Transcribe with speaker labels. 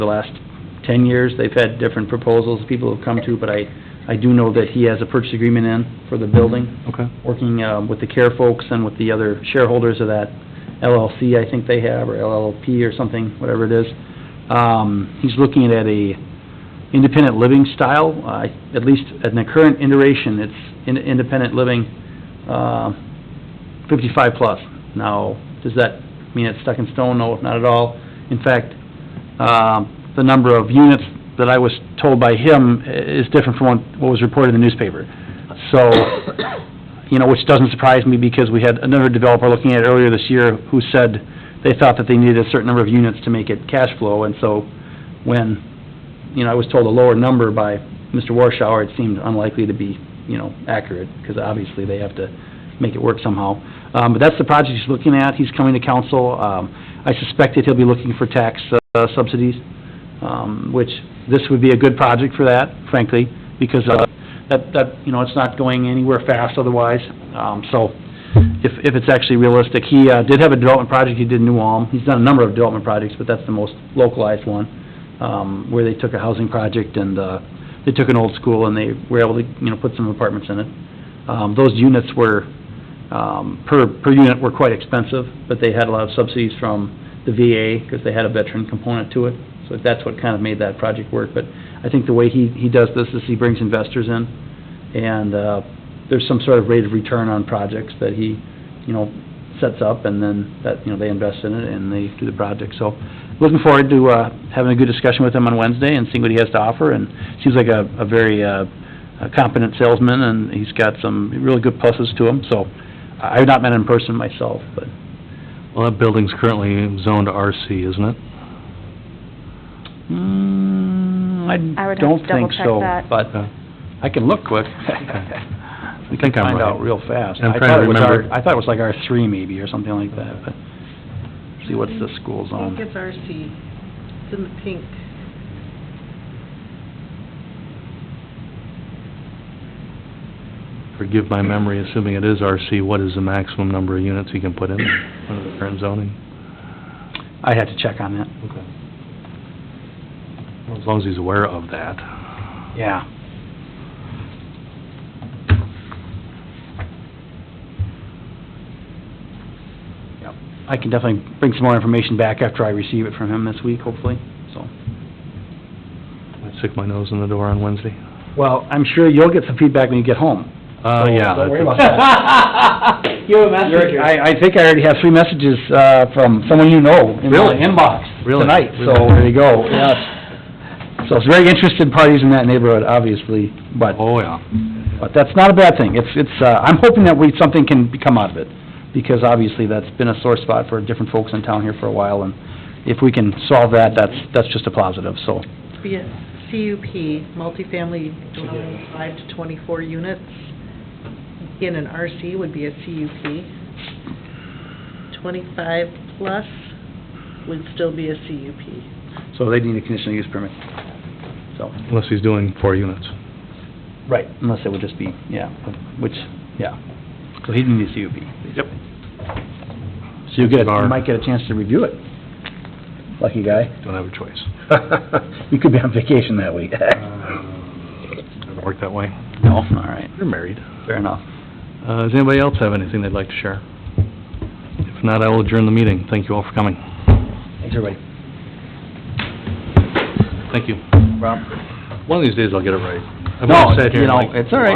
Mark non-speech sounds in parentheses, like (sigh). Speaker 1: the last ten years, they've had different proposals people have come to, but I, I do know that he has a purchase agreement in for the building,
Speaker 2: Okay.
Speaker 1: working, um, with the care folks and with the other shareholders of that LLC, I think they have, or LLP or something, whatever it is. Um, he's looking at a independent living style, uh, at least in the current iteration, it's in- independent living, uh, fifty-five plus. Now, does that mean it's stuck in stone? No, not at all. In fact, um, the number of units that I was told by him i- is different from what- what was reported in the newspaper. So, you know, which doesn't surprise me because we had another developer looking at it earlier this year who said they thought that they needed a certain number of units to make it cash flow, and so when, you know, I was told a lower number by Mr. Warschauer, it seemed unlikely to be, you know, accurate, because obviously they have to make it work somehow. Um, but that's the project he's looking at, he's coming to council, um, I suspect that he'll be looking for tax uh, subsidies, um, which, this would be a good project for that, frankly, because, uh, that, that, you know, it's not going anywhere fast otherwise, um, so, if, if it's actually realistic, he, uh, did have a development project he did in New Ulm, he's done a number of development projects, but that's the most localized one, um, where they took a housing project and, uh, they took an old school and they were able to, you know, put some apartments in it. Um, those units were, um, per, per unit were quite expensive, but they had a lot of subsidies from the VA, because they had a veteran component to it, so that's what kind of made that project work, but I think the way he, he does this is he brings investors in, and, uh, there's some sort of rate of return on projects that he, you know, sets up, and then that, you know, they invest in it and they do the project, so looking forward to, uh, having a good discussion with him on Wednesday and seeing what he has to offer, and seems like a, a very, uh, a competent salesman, and he's got some really good pluses to him, so I- I've not met him in person myself, but
Speaker 2: Well, that building's currently zoned RC, isn't it?
Speaker 1: Mm,
Speaker 3: I
Speaker 1: I
Speaker 3: would have
Speaker 1: don't
Speaker 3: to
Speaker 1: think
Speaker 3: double-check
Speaker 1: so,
Speaker 3: that.
Speaker 1: but
Speaker 2: Okay.
Speaker 1: I can look quick. We can
Speaker 2: think I'm
Speaker 1: find
Speaker 2: right.
Speaker 1: out real fast.
Speaker 2: I'm
Speaker 1: I
Speaker 2: trying
Speaker 1: thought
Speaker 2: to
Speaker 1: it was our-
Speaker 2: remember.
Speaker 1: I thought it was like R three maybe or something like that, but, see, what's the school
Speaker 4: I think
Speaker 1: zone?
Speaker 4: it's RC. It's in the pink.
Speaker 2: Forgive my memory, assuming it is RC, what is the maximum number of units you can put in under the current zoning?
Speaker 1: I had to check on that,
Speaker 2: Okay. Well, As long as he's aware of that.
Speaker 1: yeah. Yep. I can definitely bring some more information back after I receive it from him this week, hopefully, so.
Speaker 2: I stick my nose in the door on Wednesday.
Speaker 1: Well, I'm sure you'll get some feedback when you get home.
Speaker 2: Uh, yeah.
Speaker 1: Don't worry
Speaker 2: that's-
Speaker 1: about that. (laughs) You have I, I think I already have three messages, uh, from someone you know in my
Speaker 2: Really?
Speaker 1: inbox
Speaker 2: Really?
Speaker 1: tonight, so there you go, yes. So it's very interested parties in that neighborhood, obviously, but,
Speaker 2: Oh, yeah.
Speaker 1: but that's not a bad thing. It's, it's, uh, I'm hoping that we, something can come out of it, because obviously that's been a sore spot for different folks in town here for a while, and if we can solve that, that's, that's just a positive, so.
Speaker 4: Be it CUP, multifamily dwelling, five to 24 units. In an RC would be a CUP. 25 plus would still be a CUP.
Speaker 1: So they need a conditional use permit, so.
Speaker 2: Unless he's doing four units.
Speaker 1: Right, unless it would just be, yeah, which, yeah. So he didn't need a CUP. Yep. So you get, you
Speaker 2: Bar.
Speaker 1: might get a chance to review it. Lucky
Speaker 2: (laughs)
Speaker 1: guy.
Speaker 2: Don't have a
Speaker 1: (laughs)
Speaker 2: choice. Uh,
Speaker 1: You could be on vacation that week.
Speaker 2: Doesn't work that way.
Speaker 1: (laughs) No, all right,
Speaker 2: You're married.
Speaker 1: fair enough.
Speaker 2: Uh, does anybody else have anything they'd like to share? If not, I will adjourn the meeting. Thank you all for coming.
Speaker 1: Thanks, everybody.
Speaker 2: Thank you.
Speaker 1: Rob?
Speaker 2: One of these days I'll get it right. I've
Speaker 1: No,
Speaker 2: sat here
Speaker 1: you
Speaker 2: and,
Speaker 1: know,
Speaker 2: like,
Speaker 1: it's all right.